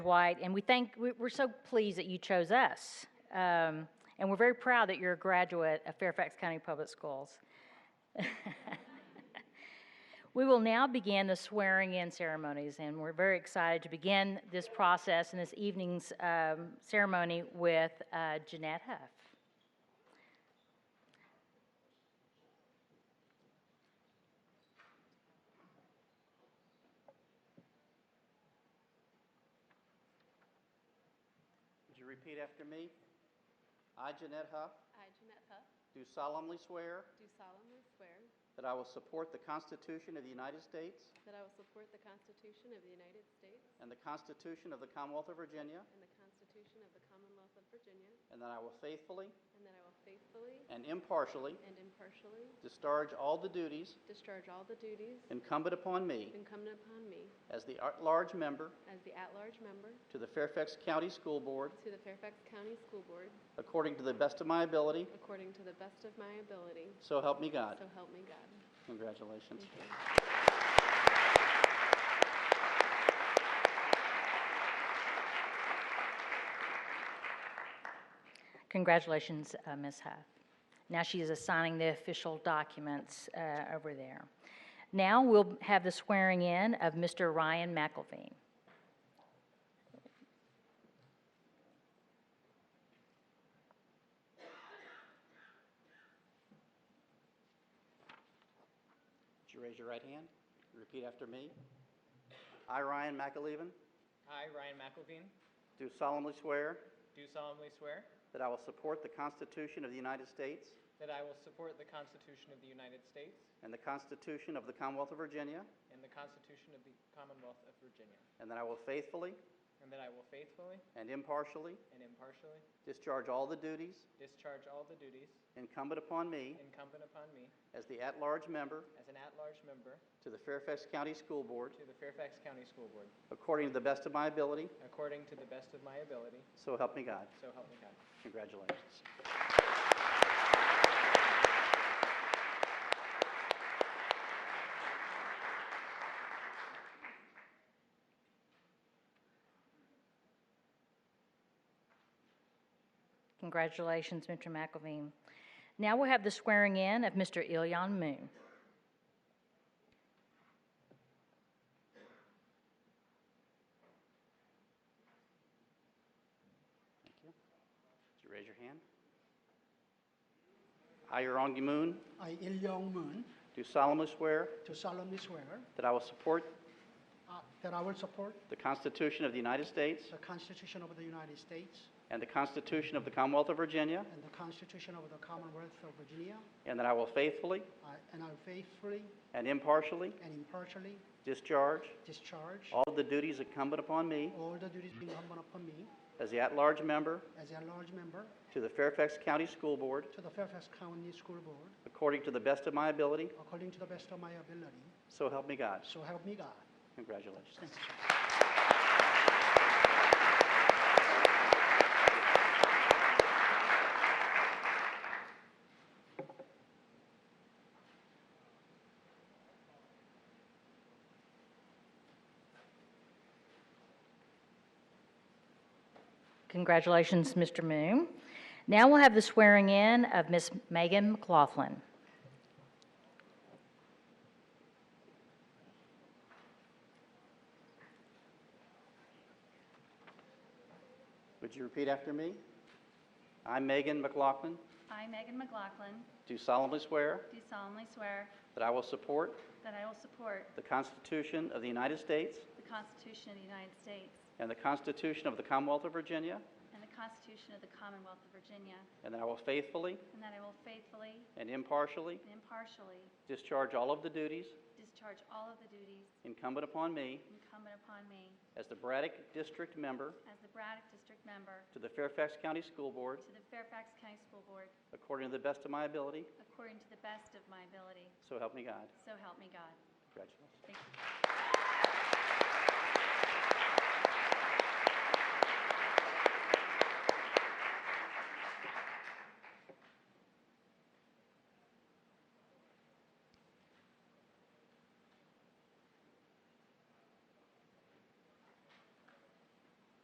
White, and we thank, we- we're so pleased that you chose us. Um, and we're very proud that you're a graduate of Fairfax County Public Schools. we will now begin the swearing in ceremonies, and we're very excited to begin this process and this evening's um, ceremony with uh, Jeanette Huff. Would you repeat after me? I, Jeanette Huff, I, Jeanette Huff, do solemnly swear do solemnly swear that I will support the Constitution of the United States that I will support the Constitution of the United States and the Constitution of the Commonwealth of Virginia, and the Constitution of the Commonwealth of Virginia, and that I will faithfully and that I will faithfully and impartially and impartially discharge all the duties discharge all the duties incumbent upon me incumbent upon me as the at-large member as the at-large member to the Fairfax County School Board to the Fairfax County School Board according to the best of my ability, according to the best of my ability, so help me God. so help me God. Congratulations. Congratulations, uh, Ms. Huff. Now she is assigning the official documents uh, over there. Now we'll have the swearing in of Mr. Ryan McElveen. Would you raise your right hand? Repeat after me. I, Ryan McAleven, I, Ryan McElveen, do solemnly swear do solemnly swear that I will support the Constitution of the United States that I will support the Constitution of the United States And the Constitution of the Commonwealth of Virginia. and the Constitution of the Commonwealth of Virginia, And that I will faithfully and that I will faithfully and impartially and impartially discharge all the duties discharge all the duties incumbent upon me incumbent upon me as the at-large member as an at-large member to the Fairfax County School Board to the Fairfax County School Board, according to the best of my ability, according to the best of my ability, so help me God. so help me God. Congratulations. Congratulations, Mr. McElveen. Now we'll have the swearing in of Mr. Ilyan Moon. Thank you. Would you raise your hand? I, Rongi Moon, I, Il Young Moon, do solemnly swear do solemnly swear that I will support uh, that I will support the Constitution of the United States the Constitution of the United States and the Constitution of the Commonwealth of Virginia, and the Constitution of the Commonwealth of Virginia, and that I will faithfully I- and I will faithfully and impartially and impartially discharge discharge All of the duties incumbent upon me all the duties incumbent upon me as the at-large member as a large member to the Fairfax County School Board to the Fairfax County School Board according to the best of my ability, according to the best of my ability. so help me God. So help me God. Congratulations. Thank you. Congratulations, Mr. Moon. Now we'll have the swearing in of Ms. Megan McLaughlin. Would you repeat after me? I, Megan McLaughlin, I, Megan McLaughlin, do solemnly swear do solemnly swear that I will support that I will support the Constitution of the United States the Constitution of the United States and the Constitution of the Commonwealth of Virginia, and the Constitution of the Commonwealth of Virginia, and that I will faithfully and that I will faithfully and impartially and impartially discharge all of the duties discharge all of the duties incumbent upon me incumbent upon me as the Braddock District Member as the Braddock District Member to the Fairfax County School Board to the Fairfax County School Board according to the best of my ability, according to the best of my ability. So help me God. So help me God. Congratulations. Thank you.